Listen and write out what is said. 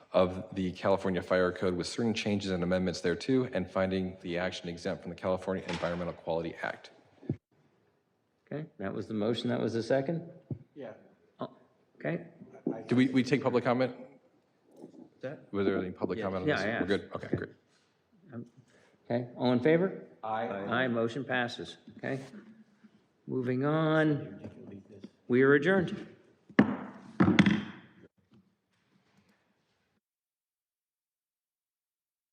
of the California Fire Code with certain changes and amendments thereto, and finding the action exempt from the California Environmental Quality Act. Okay, that was the motion, that was the second? Yeah. Oh, Okay, Did we, we take public comment? That? Was there any public comment on Yeah, this? I We're asked. good? Okay, great. okay, all in favor? I. Aye, motion passes, okay? Moving on, we are adjourned.